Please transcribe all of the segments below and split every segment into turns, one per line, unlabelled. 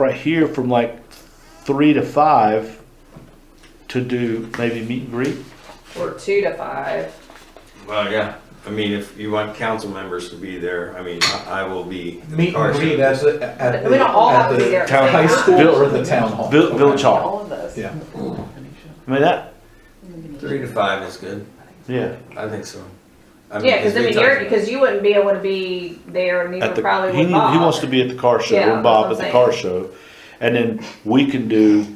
right here from like three to five to do maybe meet and greet.
or two to five.
Well, yeah, I mean, if you want council members to be there, I mean, I I will be. in the
Meet
car
and greet
show.
at the, at the.
We don't all
at
have to
the
be there at the
town
same
High
time.
school or the town hall?
Vill- Village Hall.
All of those.
Yeah.
I mean that.
Three to five is good,
Yeah.
I think so. I mean,
Yeah, because I
we
mean,
talked
you're,
about-
because you wouldn't be able to be there, and
At
neither
the,
probably
he,
would
need- he
Bob.
wants to be at the car show
Yeah,
and Bob at
that's
the
what
car
I'm
show, and then we can do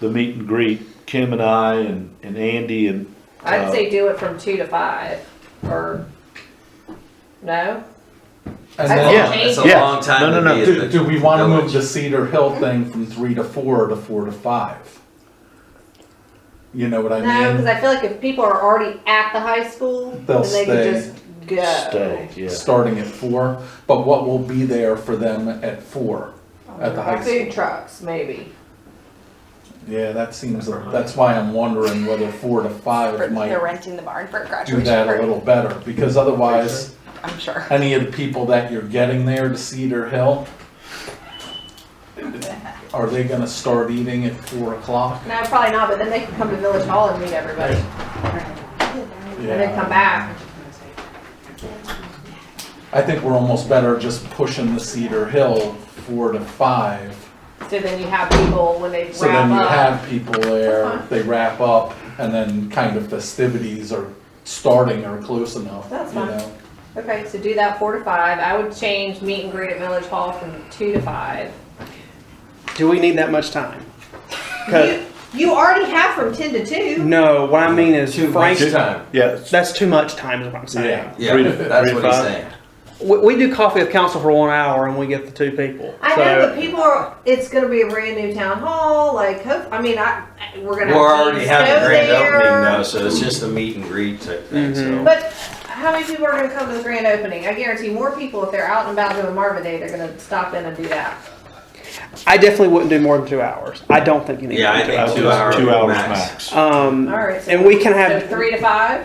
the meet and greet. Kim and I and, and Andy and
I'd
uh,
say do it from two to five, or no?
And
I-
then-
Yeah.
It's a
Yeah.
long
No,
time
no,
to
no.
be. at
Do,
the
do we wanna move
village.
the Cedar Hill thing from three to four or to four to five? You know what I
No,
mean?
because I feel like if people are already at the high school,
They'll
then they
stay.
could just go.
stay. Yeah.
starting at four, but what will be there for them at four? At the high
Food
school.
trucks, maybe.
Yeah, that seems, that's why I'm wondering whether four to
For-
five
They're
might
renting the barn for
do
graduation
that a
party,
little better, because otherwise,
I'm sure.
any of the people that you're getting there to Cedar Hill, are they gonna start eating at four o'clock?
No, probably not. But then they can come to Village Hall and meet everybody, and then come back.
I think we're almost better just pushing the Cedar Hill four to five.
So then you have people when they wrap
So then you
up. Uh-huh.
have people there,
That's
they wrap up, and then kind of festivities are starting or close enough,
That's
you
fine.
know?
Okay, so do that four to five. I would change meet and greet at Village Hall from two to five.
Do we need that much time? 'Cause-
You, you already have from ten to two.
no, what I mean is
Too much
Frank.
time.
Yeah.
That's too much time, is what I'm
Yeah.
saying.
Three
Yeah,
to- three
that's
to
what he's
five.
saying.
We, we do coffee with council for one hour and we get the two people.
I
so,
know, but people are. It's going to be a brand new town hall. Like, hope, I mean, I I- we're going to.
We're already having a grand opening
there.
now, so it's just a meet and greet type thing, so.
But how many people are going to come to the grand opening? I guarantee more people if they're out and about doing Marvin Day, they're going to stop in and do that.
I definitely wouldn't do more than two hours. I don't think you need
Yeah,
more
I
than two
think
hours.
Two
Two
hours
hours,
max.
max.
Um,
All right. So
and we can
so
have
three to five.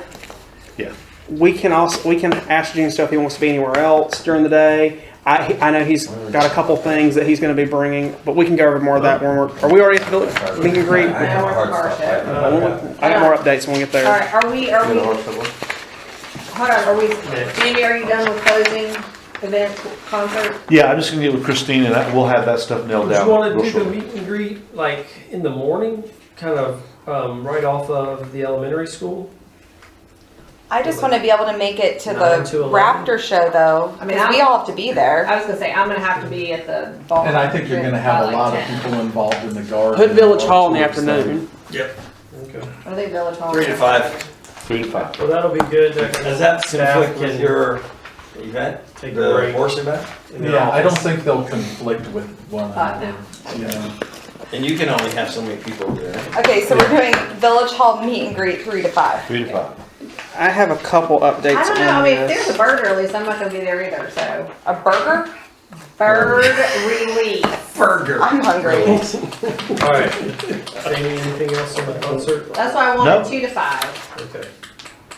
Yeah.
we can also we can ask Gene stuff if he wants to be anywhere else during the day. I, he- I know he's got a couple things that he's going to be bringing, but we can go over more of that when we're. Are we already at the meet and greet?
I have a hard stop right now.
I got more updates when we get
All
there.
right. Are we? Are we? Hold on. Are we? Jamie, are you done with closing event concert?
Yeah. I'm just gonna get with Christine and that, we'll have that stuff nailed
Would
down.
you want
real
to do the
shortly.
meet and greet like in the morning, kind of um, right off of the elementary school?
I just wanna be able to make it to
Nine
the
to eleven.
Raptor show though,
I mean,
cause we
I'm-
all have to be there.
I was gonna say, I'm gonna have to be at the ball.
And I think you're gonna have a lot of people involved in the garden.
Put Village Hall in the
or towards
afternoon.
Okay.
Are they Village Hall?
Three to five.
Three to five.
Well, that'll be good.
Does that
staff
conflict with
can
your event,
Take a
the
break.
horse event?
them.
in their
Yeah, I don't
office.
think they'll conflict with one
Uh, no.
another, you know?
And you can only have so many people there.
Okay, so we're doing Village Hall meet and greet three to five.
Three to five.
I have a couple updates.
I don't know,
on
I mean, if
this.
there's a bird release, I'm not gonna be there either, so.
A burger?
Bird release,
Burger.
I'm hungry.
All right. Jamie, anything else on the concert?
that's why I
No.
wanted two to five.
Okay.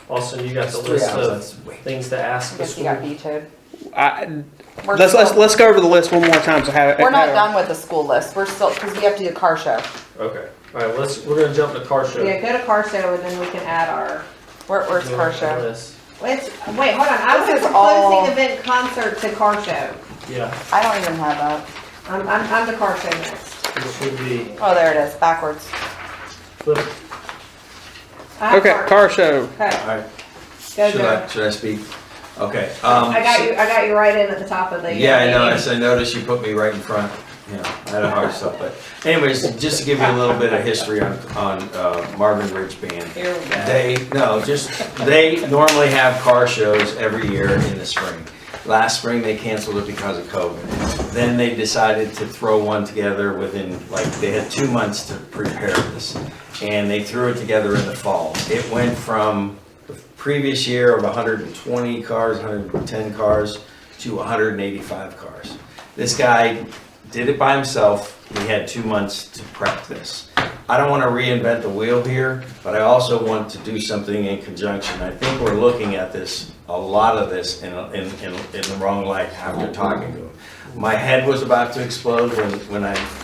Austin, you got the
Three
list
hours,
of
that's way-
things to ask
I
the
guess you
school.
got vetoed.
I,
We're
let's, let's
still-
let's go over the list one more time. So have
We're not
have-
done with the school list, we're still, cause we have to do car show.
Okay. All right. Let's. We're gonna jump to car show.
Yeah, go to car show and then we can add our,
Where, where's
You
car
want the
show?
list?
wait, wait, hold on, I
This
went
is
from
all-
closing event concert to car show.
Yeah.
I don't even have that.
I'm, I'm, I'm the car show next.
It should be.
Oh, there it is, backwards.
Flip.
I have
Okay, car show.
Okay,
All right,
go,
should I,
go.
should I speak? Okay. um,
I got you, I got you right in at the top of the. uh,
Yeah, I know,
meeting.
I s- I noticed you put me right in front, you know, I had a hard stop, but anyways, just to give you a little bit of history on, on uh, Marvin Ridge Band.
Here we go.
They, no, just, they normally have car shows every year in the spring. Last spring, they canceled it because of COVID. Then they decided to throw one together within, like, they had two months to prepare this. And they threw it together in the fall. It went from the previous year of 120 cars, 110 cars, to 185 cars. This guy did it by himself. He had two months to prep this. I don't want to reinvent the wheel here, but I also want to do something in conjunction. I think we're looking at this, a lot of this, in, in, in in the wrong light after talking to him. My head was about to explode when, when I